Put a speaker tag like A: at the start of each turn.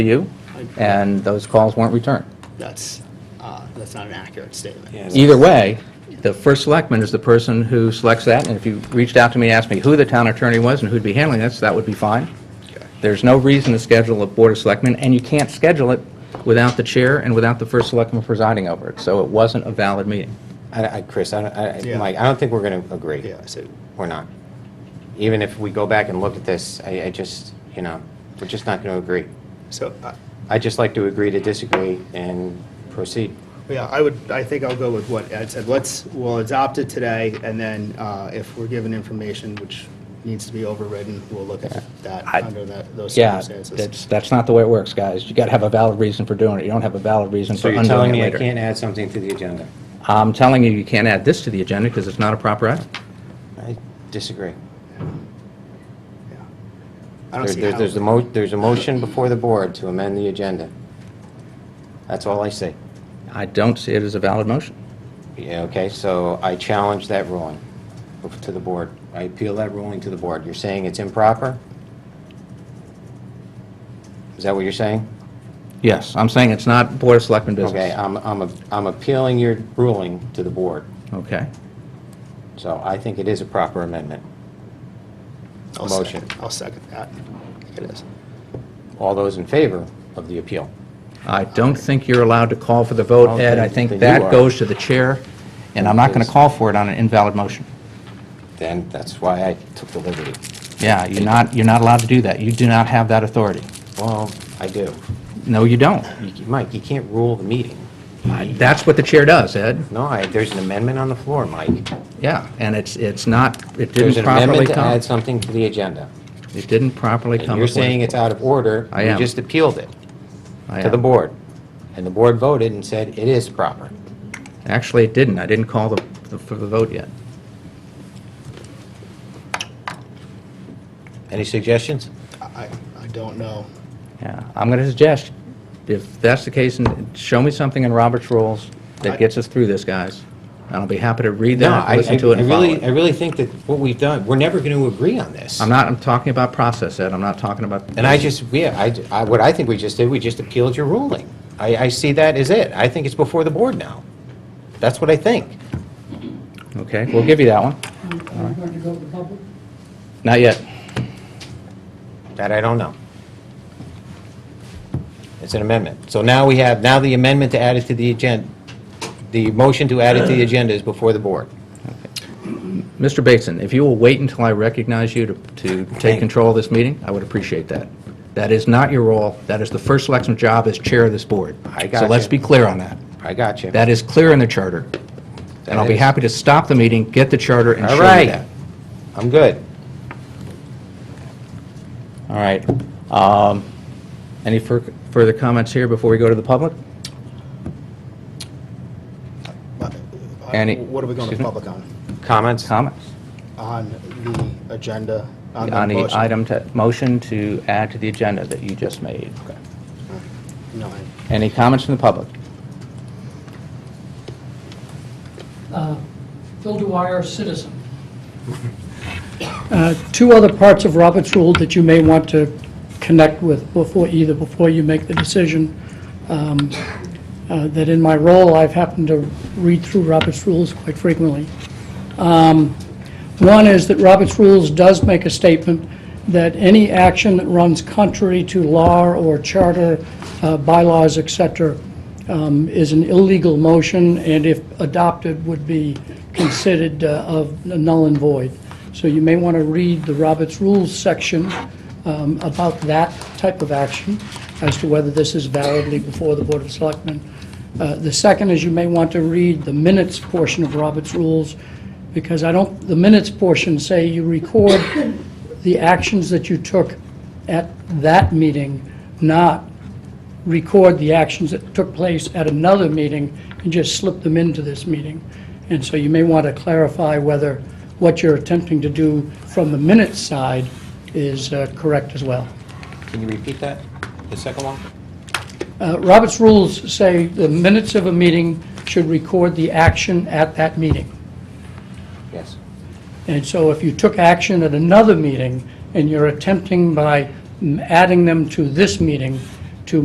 A: to you, and those calls weren't returned.
B: That's, uh, that's not an accurate statement.
C: Yeah.
A: Either way, the first selectman is the person who selects that, and if you reached out to me and asked me who the town attorney was and who'd be handling this, that would be fine. There's no reason to schedule a board of selectmen, and you can't schedule it without the chair and without the first selectman presiding over it, so it wasn't a valid meeting.
C: I, I, Chris, I, don't- I, I-
B: Yeah.
C: Mike, I don't think we're gonna agree.
B: Yeah, so,
C: We're not. Even if we go back and look at this, I, I just, you know, we're just not gonna agree.
B: so, uh,
C: I'd just like to agree to disagree and proceed.
B: yeah, I would, I think I'll go with what Ed said. Let's, we'll adopt it today, and then uh, if we're given information which needs to be overridden, we'll look at that
A: I-
B: under that, those
A: Yeah,
B: circumstances.
A: that's, that's not the way it works, guys. You gotta have a valid reason for doing it. You don't have a valid reason
C: So
A: for
C: you're
A: undoing
C: telling
A: it
C: me I
A: later.
C: can't add something to the agenda?
A: I'm telling you, you can't add this to the agenda because it's not a proper item.
C: I disagree.
B: Yeah. I don't
C: There-
B: see
C: there- There's a
B: how,
C: mo, there's a motion before the board to amend the agenda. That's all I see.
A: I don't see it as a valid motion.
C: Yeah, okay, so I challenge that ruling to the board. I appeal that ruling to the board. You're saying it's improper? Is that what you're saying?
A: Yes, I'm saying it's not Board of Selectmen business.
C: Okay, I'm, I'm, a- I'm appealing your ruling to the board,
A: Okay.
C: so I think it is a proper amendment.
B: I'll
C: motion.
B: second, I'll second that. I think It is.
C: All those in favor of the appeal?
A: I don't think you're allowed to call for the vote,
C: Okay,
A: Ed. I think
C: then you
A: that
C: are.
A: goes to the chair, and I'm not going to call for it on an invalid motion.
C: Then that's why I took the liberty.
A: Yeah, you're not, you're not allowed to do that. You do not have that authority.
C: Well, I do.
A: No, you don't.
C: You c- Mike, you can't rule the meeting.
A: That's what the chair does, Ed.
C: No, I, there's an amendment on the floor, Mike.
A: Yeah, and it's, it's not, it
C: There's
A: didn't
C: an
A: properly
C: amendment to
A: come.
C: add something to the agenda.
A: It didn't properly come.
C: And you're
A: before-
C: saying it's out of order.
A: I
C: You
A: am.
C: just appealed it
A: I
C: to the
A: am.
C: board. And the board voted and said it is proper.
A: Actually, it didn't. I didn't call the, the- for the vote yet.
C: Any suggestions?
B: I, I don't know.
A: Yeah, I'm going to suggest, if that's the case, and show me something in Robert's rules that gets us through this, guys. And I'll be happy to read
C: No, I,
A: that,
C: I
A: listen to it,
C: I
A: and follow
C: really, I
A: it.
C: really think that what we've done, we're never going to agree on this.
A: I'm not, I'm talking about process, Ed, I'm not talking about...
C: And I just, yeah, I, I- what I think we just did, we just appealed your ruling. I, I see that as it. I think it's before the board now. That's what I think.
A: Okay, we'll give you that one.
D: Are we going to go to public?
A: Not yet.
C: That I don't know. It's an amendment. So now we have, now the amendment to add it to the agenda, the motion to add it to the agenda is before the board.
A: Mr. Bateson, if you will wait until I recognize you to, to take control of this meeting, I would appreciate that. That is not your role, that is the first selectman's job as chair of this board.
C: I
A: So
C: gotcha.
A: let's be clear on that.
C: I got you.
A: That is clear in the charter, and I'll be happy to stop the meeting, get the charter, and show
C: All
A: you
C: right.
A: that.
C: I'm good.
A: All right. Um, Any fur- further comments here before we go to the public?
B: But, uh,
A: Any-
B: What are we going
A: excuse
B: to
A: me?
B: public on?
C: Comments?
A: Comments?
B: On the agenda, on the
A: On
B: Uh, motion?
A: the item to, motion to add to the agenda that you just made.
B: No, I-
A: Any comments from the public?
D: Uh, Bill Dwyer, citizen. Uh, Two other parts of Robert's Rule that you may want to connect with before, either before you make the decision. um, uh, That in my role, I've happened to read through Robert's Rules quite frequently. One is that Robert's Rules does make a statement that any action that runs contrary to law or charter, uh, bylaws, et cetera, um, is an illegal motion, and if adopted, would be considered uh, of null and void. So you may want to read the Robert's Rules section um, about that type of action, as to whether this is validly before the Board of Selectmen. Uh, The second is you may want to read the minutes portion of Robert's Rules, because I don't, the minutes portion say you record the actions that you took at that meeting, not record the actions that took place at another meeting and just slip them into this meeting. And so you may want to clarify whether what you're attempting to do from the minutes side is uh, correct as well.
C: Can you repeat that? The second one?
D: Uh, Robert's rules say the minutes of a meeting should record the action at that meeting.
C: Yes.
D: And so if you took action at another meeting and you're attempting by mm, adding them to this meeting